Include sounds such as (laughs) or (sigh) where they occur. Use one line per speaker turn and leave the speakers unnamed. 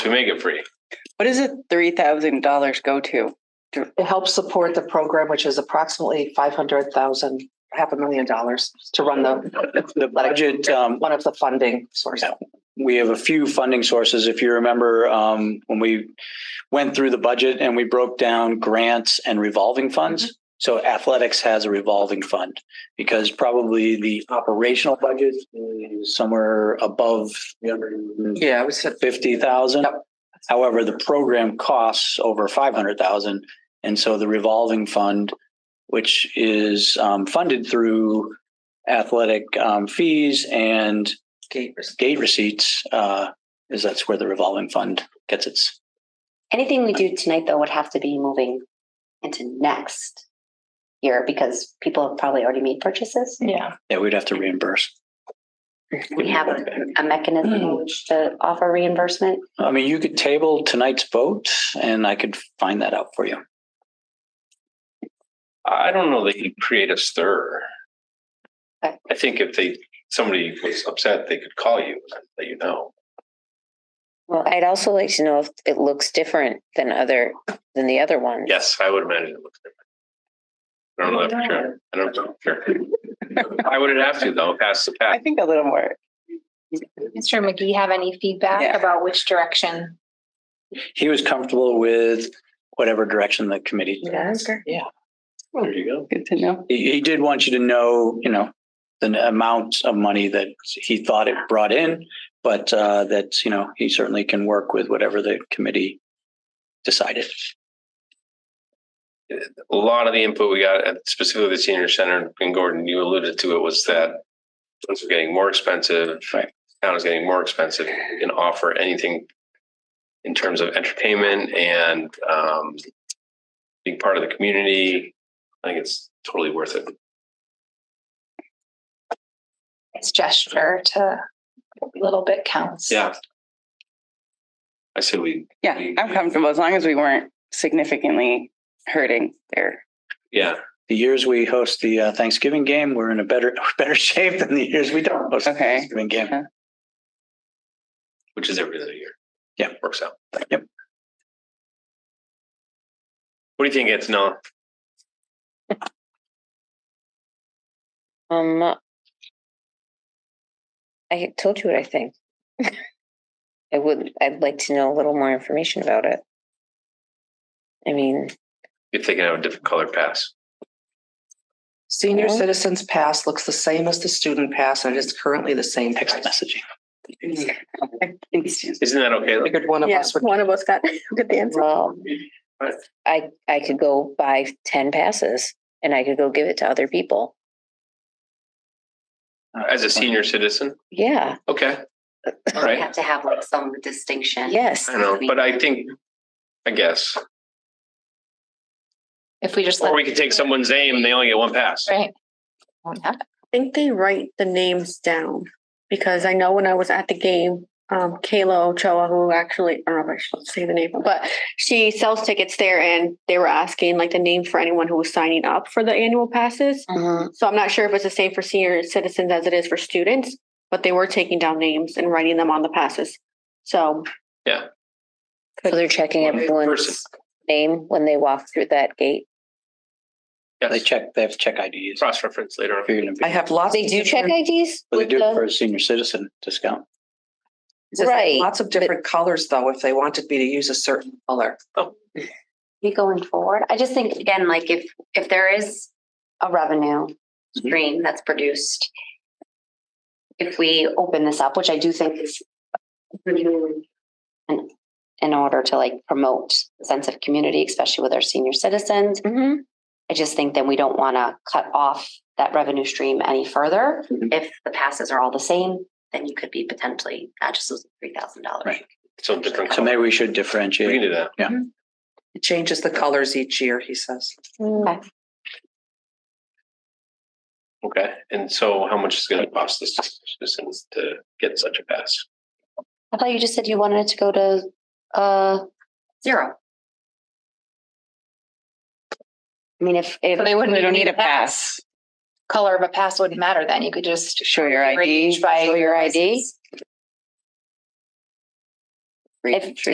to make it free.
What does the three thousand dollars go to?
It helps support the program, which is approximately five hundred thousand, half a million dollars to run the,
The budget, um,
one of the funding sources.
we have a few funding sources. If you remember, um, when we went through the budget and we broke down grants and revolving funds. So athletics has a revolving fund because probably the operational budget is somewhere above
Yeah, we said,
fifty thousand.
Yep.
However, the program costs over five hundred thousand. And so the revolving fund, which is um, funded through athletic um, fees and gate receipts, uh, is that's where the revolving fund gets its.
Anything we do tonight, though, would have to be moving into next year because people have probably already made purchases.
Yeah.
Yeah, we'd have to reimburse.
We have a, a mechanism in which to offer reimbursement.
I mean, you could table tonight's vote and I could find that out for you.
I don't know that you create a stir.
Okay.
I think if they, somebody was upset, they could call you and let you know.
Well, I'd also like to know if it looks different than other, than the other one.
Yes, I would imagine it looks different. I don't know that for sure. I don't know for
(laughs)
sure. I would have to though, pass the
I
pack.
think a little more.
Mr. McGee, have any feedback
Yeah.
about which direction?
He was comfortable with whatever direction the committee.
There you go.
Good to know.
He, he did want you to know, you know, the amount of money that he thought it brought in, but uh, that, you know, he certainly can work with whatever the committee decided.
A lot of the input we got at specifically the senior center and Gordon, you alluded to it was that things were getting more expensive.
Right.
Town is getting more expensive and offer anything in terms of entertainment and um, being part of the community. I think it's totally worth it.
It's gesture to little bit counts.
Yeah. I say we,
Yeah, I'm comfortable as long as we weren't significantly hurting their
yeah,
The years we host the uh, Thanksgiving game, we're in a better (laughs) better shape than the years we don't host the
Okay.
Thanksgiving game.
which is every other year.
Yeah.
Works out.
Yep.
What do you think, Antonella?
Um, I told you what I think. (laughs) I would, I'd like to know a little more information about it. I mean,
You're thinking of a different color pass.
Senior
Okay.
Citizens Pass looks the same as the Student Pass, and it is currently the same
Text
price.
messaging.
Isn't that okay? Like,
Figured one of us would.
of us got, (laughs) got the answer.
well,
Right.
I, I could go buy ten passes and I could go give it to other people.
As a senior citizen?
Yeah,
Okay. All
We
right.
have to have like some distinction.
yes.
I know, but I think, I guess,
If we just.
or
let-
we could take someone's name and they only get one pass.
Right. Won't happen.
think they write the names down because I know when I was at the game, um, Kayla Ochoa, who actually, I don't know if I should say the name, but she sells tickets there and they were asking like the name for anyone who was signing up for the annual passes.
Mhm.
Mm.
So I'm not sure if it's the same for senior citizens as it is for students, but they were taking down names and writing them on the passes. So
So they're checking
One person.
everyone's name when they walk through that gate.
They
Yes.
check, they have to check IDs.
Cross reference later on.
If you're gonna be-
I have lots.
They
of
do check
different-
IDs?
But they
with
do
the-
it for a senior citizen discount.
it says
Right,
Lots of different colors, though, if they wanted me to use a certain color.
Be going forward. I just think again, like if, if there is a revenue
Mm-hmm.
stream that's produced, if we open this up, which I do think is in, in order to like promote the sense of community, especially with our senior citizens,
Mhm.
I just think then we don't want to cut off that revenue stream any further.
Mm-hmm.
Mhm.
If the passes are all the same, then you could be potentially not just losing three thousand dollars.
Right.
So different
So
color.
maybe we should
We can
differentiate.
do that.
It changes the colors each year, he says.
Okay. And so how much is it going to cost the citizens to get such a pass?
I thought you just said you wanted it to go to uh zero. I mean, if if
So they wouldn't
They
even
don't need a pass.
Color of a pass wouldn't matter then. You could just.
Show your ID.
By
your ID.
Free
If-
entry.